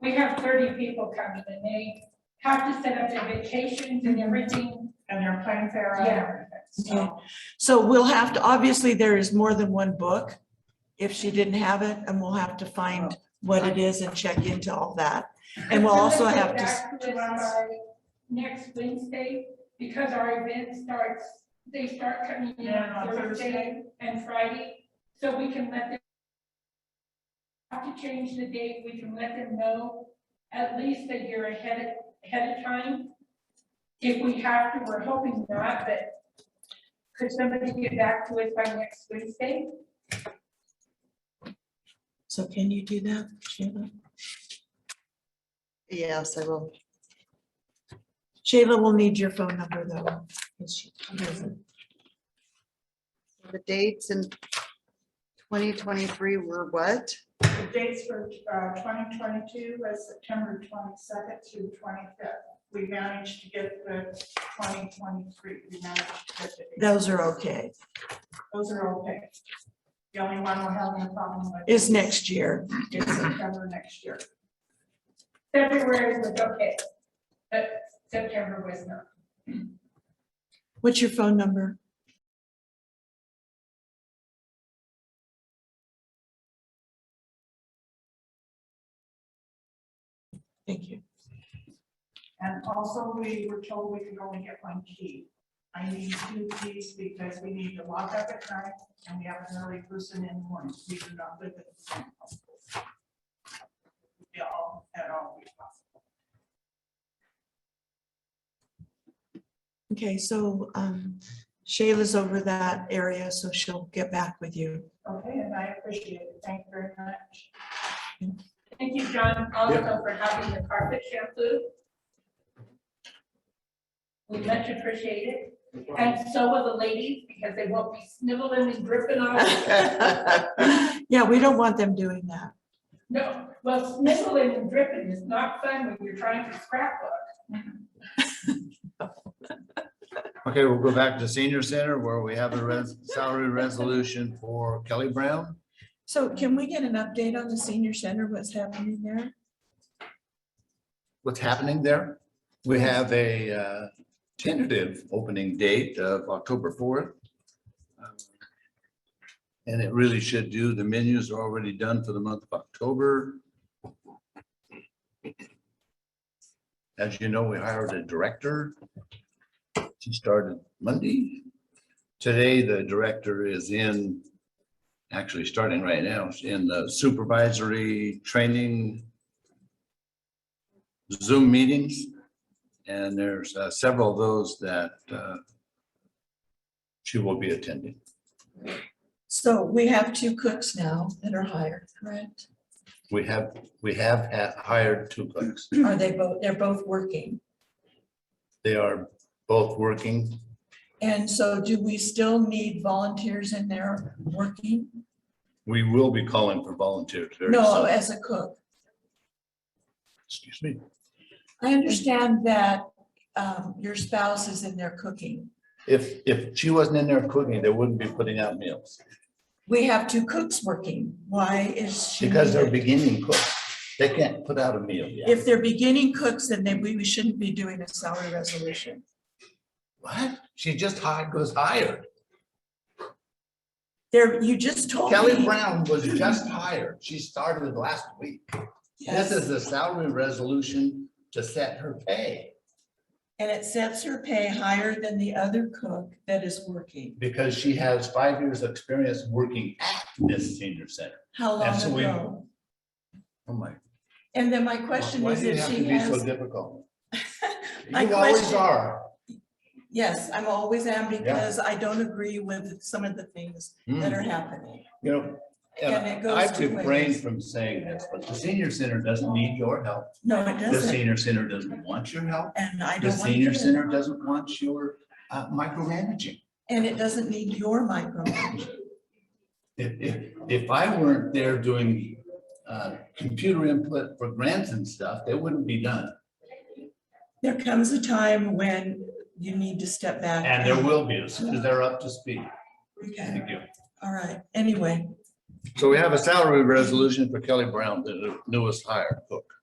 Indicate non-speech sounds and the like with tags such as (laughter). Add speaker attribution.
Speaker 1: we have thirty people coming and they have to set up their vacations and everything and their plans there. Yeah. So,
Speaker 2: So we'll have to, obviously, there is more than one book. If she didn't have it, and we'll have to
Speaker 3: Oh.
Speaker 2: find what it is and check into all that. And we'll also have to,
Speaker 1: Back to us by Next Wednesday, because our event starts, they start coming in
Speaker 4: Yeah,
Speaker 1: on
Speaker 4: on
Speaker 1: Thursday and Friday, so we can let them. Have to change the date, we can let them know at least a year ahead, of- ahead of time. If we have to, we're hoping not, but could somebody get back to us by next Wednesday?
Speaker 2: so can you do that? Shayla?
Speaker 3: Yes, I will.
Speaker 2: Shayla will need your phone number though. 'cause she doesn't-
Speaker 3: The dates in twenty twenty-three were what?
Speaker 4: The dates for uh, twenty twenty-two was September twenty-second through twenty-fifth. We managed to get the twenty twenty-three, we managed to get the dates.
Speaker 2: Those are okay.
Speaker 4: Those are okay. The only one we're having a problem with.
Speaker 2: Is next year.
Speaker 4: Is September next year.
Speaker 1: February was okay, but September was not.
Speaker 2: What's your phone number? Thank you.
Speaker 4: And also, we were told we could only get one key. I need two keys because we need to lock up at night and we have an early person in the morning. We do not live in the same house. Yeah, all- at all. we possible.
Speaker 2: Okay, so um, Shayla's over that area, so she'll get back with you.
Speaker 4: Okay, and I appreciate it. Thank you very much.
Speaker 1: Thank you, John, also for having the carpet shampoo. We much appreciate it, and so will the ladies, because they won't be sniveling and dripping on.
Speaker 2: (laughs) Yeah, we don't want them doing that.
Speaker 1: No, well, sniveling and dripping is not fun when you're trying to scrapbook.
Speaker 5: Okay, we'll go back to senior center where we have a res- salary resolution for Kelly Brown.
Speaker 2: So can we get an update on the senior center, what's happening there?
Speaker 5: What's happening there? We have a uh, tentative opening date of October fourth. Um, And it really should do, the menus are already done for the month of October. As you know, we hired a director. She started Monday. Today, the director is in, actually starting right now, in the supervisory training Zoom meetings. And there's uh, several of those that uh, she will be attending.
Speaker 2: So we have two cooks now that are hired, (clears throat) correct?
Speaker 5: We have, we have ha- hired two cooks.
Speaker 2: Are they both, they're both working?
Speaker 5: They are both working.
Speaker 2: And so do we still need volunteers in there working?
Speaker 5: We will be calling for volunteers. very
Speaker 2: No,
Speaker 5: soon.
Speaker 2: as a cook.
Speaker 5: Excuse me.
Speaker 2: I understand that um, your spouse is in there cooking.
Speaker 5: If, if she wasn't in there cooking, they wouldn't be putting out meals
Speaker 2: We have two cooks working. Why is she?
Speaker 5: because they're
Speaker 2: needed?
Speaker 5: beginning cooks. They can't put out a meal yet.
Speaker 2: If they're beginning cooks, then they, we we shouldn't be doing a salary resolution.
Speaker 5: What? She just hired, was hired.
Speaker 2: There, you just told me.
Speaker 5: Kelly Brown was just hired. She started last week. This is the salary resolution to set her pay
Speaker 2: And it sets her pay higher than the other cook that is working.
Speaker 5: because she has five years' experience working at this senior center.
Speaker 2: How
Speaker 5: And so
Speaker 2: long
Speaker 5: we-
Speaker 2: ago?
Speaker 5: Oh my.
Speaker 2: And then my question
Speaker 5: Why
Speaker 2: is
Speaker 5: do you
Speaker 2: if
Speaker 5: have
Speaker 2: she
Speaker 5: to be so
Speaker 2: has,
Speaker 5: difficult?
Speaker 2: (laughs) My
Speaker 5: You always
Speaker 2: question-
Speaker 5: are.
Speaker 2: yes, I'm always am because I don't agree with some of the things that
Speaker 5: Mm,
Speaker 2: are happening.
Speaker 5: You know,
Speaker 2: And it
Speaker 5: and
Speaker 2: goes
Speaker 5: I've
Speaker 2: two
Speaker 5: refrained
Speaker 2: ways.
Speaker 5: from saying this, but the senior center doesn't need your help.
Speaker 2: No, it
Speaker 5: The
Speaker 2: doesn't.
Speaker 5: senior center doesn't want your help.
Speaker 2: And I
Speaker 5: The
Speaker 2: don't want to.
Speaker 5: senior
Speaker 2: do it.
Speaker 5: center doesn't want your uh, micromanaging.
Speaker 2: And it doesn't need your micromanagement.
Speaker 5: If, if, if I weren't there doing, uh, computer input for grants and stuff, they wouldn't be done.
Speaker 2: There comes a time when you need to step back.
Speaker 5: And there will be, as soon as they're up to speed.
Speaker 2: Okay,
Speaker 5: Thank you.
Speaker 2: all right, anyway.
Speaker 5: So we have a salary resolution for Kelly Brown, the newest hire, cook.